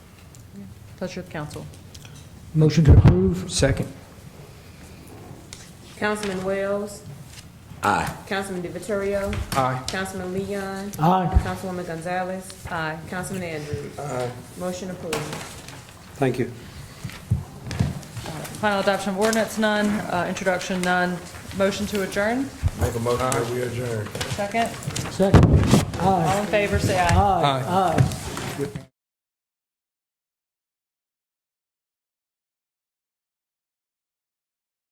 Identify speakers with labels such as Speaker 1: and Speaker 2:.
Speaker 1: Pleasure of council.
Speaker 2: Motion to approve?
Speaker 3: Second.
Speaker 4: Councilman Wells. Aye. Councilman DeViterio.
Speaker 3: Aye.
Speaker 4: Councilman Leon.
Speaker 2: Aye.
Speaker 4: Councilwoman Gonzalez.
Speaker 1: Aye.
Speaker 4: Councilman Andrews.
Speaker 3: Aye.
Speaker 4: Motion approved.
Speaker 5: Thank you.
Speaker 1: Final adoption of ordinance, none. Uh, Introduction, none. Motion to adjourn,
Speaker 6: Make a motion that we adjourn.
Speaker 1: second.
Speaker 2: Second? Aye.
Speaker 1: All in favor, say aye.
Speaker 2: Aye. Aye.